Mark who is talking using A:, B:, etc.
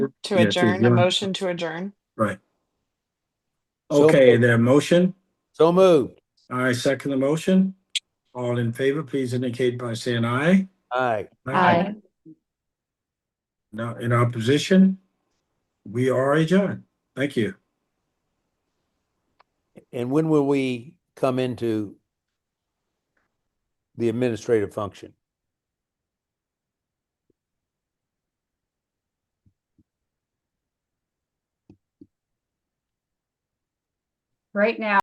A: Yeah,
B: to
A: to
B: adjourn, a
A: adjourn.
B: motion to adjourn.
A: Right.
C: So
A: Okay,
C: moved.
A: their motion.
C: So moved.
A: I second the motion. All in favor, please indicate by saying aye.
C: Aye.
B: Aye.
A: Now, in opposition, we are adjourned. Thank you.
C: And when will we come into the administrative function?
D: Right now,